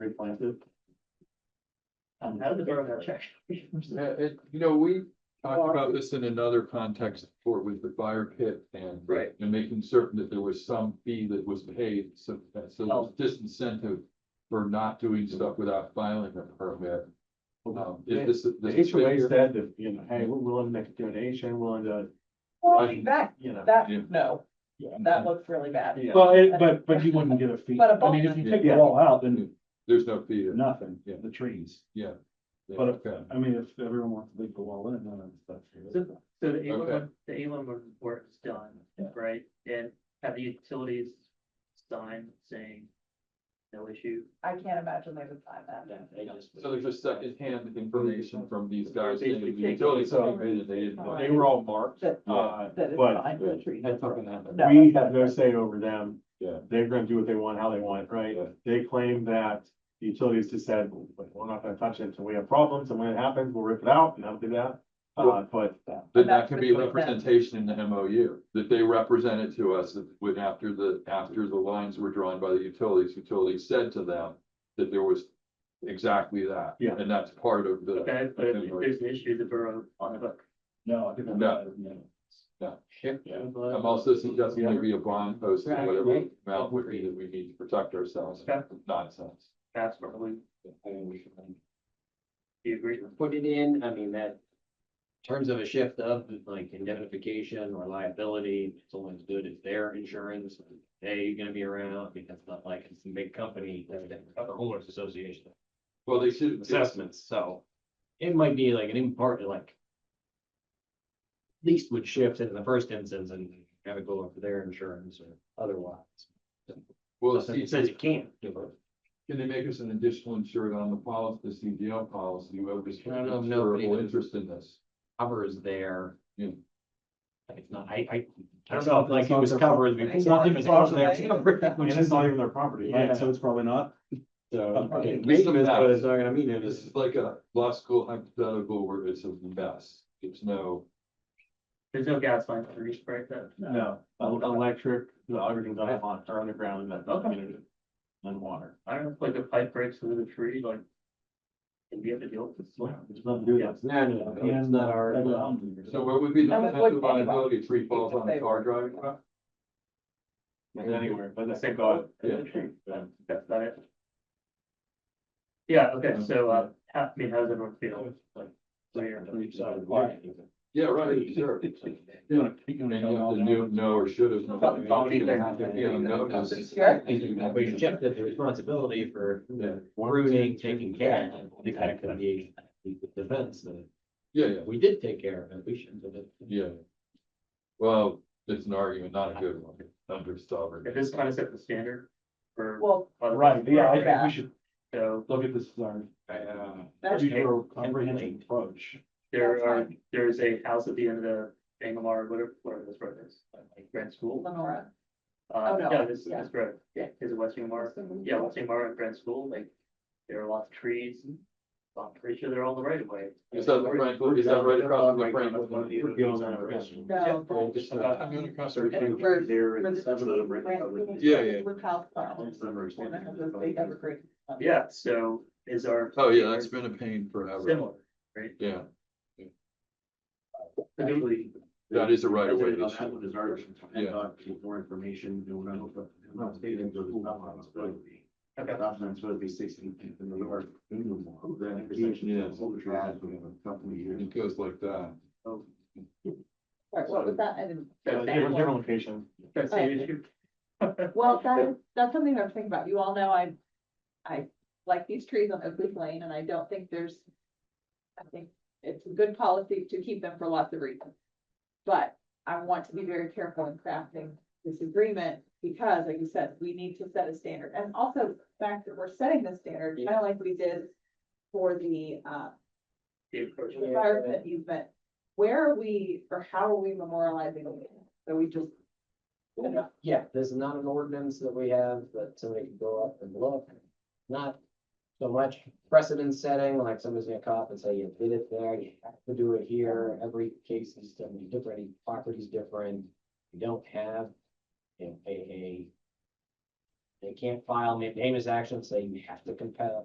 planted. Um, how did the borough have check? Yeah, it, you know, we talked about this in another context before with the fire pit and. Right. And making certain that there was some fee that was paid, so that's a Oh. disincentive for not doing stuff without filing a permit. Um, if The this, this. is HOA bigger, said that, you know, hey, we're willing to make a donation, willing to, Well, I- that, you know. that, Yeah. no, that looks really bad. Yeah. Well, it- but, but you wouldn't get a fee. But a I mean, if you take it bonus. all out, then There's no fee. to- nothing, Yeah. the trees. yeah, But if, okay. I mean, if everyone wants to leave the wall in, then that's. So so the Elam, Okay. one- the Elam report is done, Yeah. right? And have the utilities signed saying no issue? I can't imagine they would find that. So there's just secondhand information from these guys. They- saying the they- utilities so- paid it, they didn't know. They were all marked. That, Uh, that is but fine for the trees. That's not gonna happen. No. we that's have no right. say over them. Yeah. They're gonna do what they want, how they want, right? Yeah. They claim that the utilities just said, we're not gonna touch it until we have problems, and when it happens, we'll rip it out, and they'll do that. Uh, but But And that that's can the be a point that- representation in the MOU, that they represented to us that when after the, after the lines were drawn by the utilities, utilities said to them that there was exactly that. Yeah. And that's part of the, Okay, but if there's an issue, the borough on the hook. No, I think. that's- No. yeah. I'm I'm also suggesting maybe a bond post, or whatever amount would be that we need to protect ourselves Okay. from nonsense. That's probably, I mean, we can do you agree? Put it in, I mean, that. in Terms of a shift of like indemnification or liability, it's only as good as their insurance, they gonna be around, I mean, that's not like it's a big company, that's the homeowners association. Well, they should. Assessments, so. It might be like an important, like. at Least would shift in the first instance and have it go up for their insurance or otherwise. Well, It see, says you can't do it. can they make us an additional insured on the policy, the CDL policy, whoever is. I don't know if nobody- insurable Interest in this. covers there. Yeah. Like, It's not, I, I, I don't know, if, like it was covered. we- It's not if it's covered there, even- it's Which covered. is not even their property, Yeah. right? So it's probably not. So, Okay. okay, leave them as, but it's not gonna mean it This is. is like a law school hypothetical where it's a mess. It's no, There's no gas line to reach right there. No, el- electric, the everything's on, on- are underground in that Okay. community. And water. I don't know, if, like a pipe breaks through the tree, like. And we have to deal with this. Well, There's nothing to do with No, no, no, it's not that. our. so what would be the No, it potential wouldn't anyway. liability if tree falls on a car driving? by? Anywhere, but that's God. Yeah. Yeah, That's about it. Yeah, okay, so, uh, how, I mean, how does everyone feel? Like, where, Yeah, right, sure. You wanna- you And wanna you go have all to down. know, know or should have. known. Don't You be there. have to be on notice. Sure. But you kept the responsibility for the ruining, taking care of the fact that the, the defense, that Yeah, yeah, we did take care of it, we shouldn't have. yeah. Well, it's an argument, not a good one, under it sovereign. just kind of set the standard for. Well, other- Right, yeah, I think we should So look at this as our Uh, that's usual true. comprehensive approach. there That's are, there's a house at the end of the Bangalore, whatever, whatever this road is, uh, like Grand School. Lenora. Oh, Uh, no, yeah, this, yeah. this road, yeah, is it West Bangalore? Yeah, West Bangalore and Grand School, like, there are lots of trees. I'm pretty sure they're all the right of way. Is that the Franklin, is that right across from the Franklin? No. Well, it's not- I'm gonna cross Where- everything. where the- There where and the- seven of them right now. Yeah, yeah. Blue house farm. One that has those big evergreen- Yeah, so is our. Oh, yeah, that's been a pain forever. Similar, right? Yeah, Particularly, that is a right of way President, on issue. That one is ours. Yeah. More information, and we're not, we're not stating that it's not on its way. okay. That's not supposed to be sixteen. and then we're- That intersection Yeah. is what we had, we have a couple of years. It goes like that. Right, what was that? I didn't- that That's Different one. different location. That's the Okay. issue. Well, that is, that's something I was thinking about. You all know I, I like these trees on Oakleaf Lane and I don't think there's. I think it's a good policy to keep them for lots of reasons. But I want to be very careful in crafting this agreement because like you said, we need to set a standard. And also the fact that we're setting the standard, kind of like we did for the, uh, The approach. the fire pit easement. Where are we or how are we memorializing it? So we just. Yeah, there's not an ordinance that we have that somebody can go up and look. Not so much precedent setting, like somebody's gonna cop and say, you did it there, you have to do it here. Every case is gonna be different, each property's different. You don't have, you know, a, a. They can't file mandamus action, say you have to compel,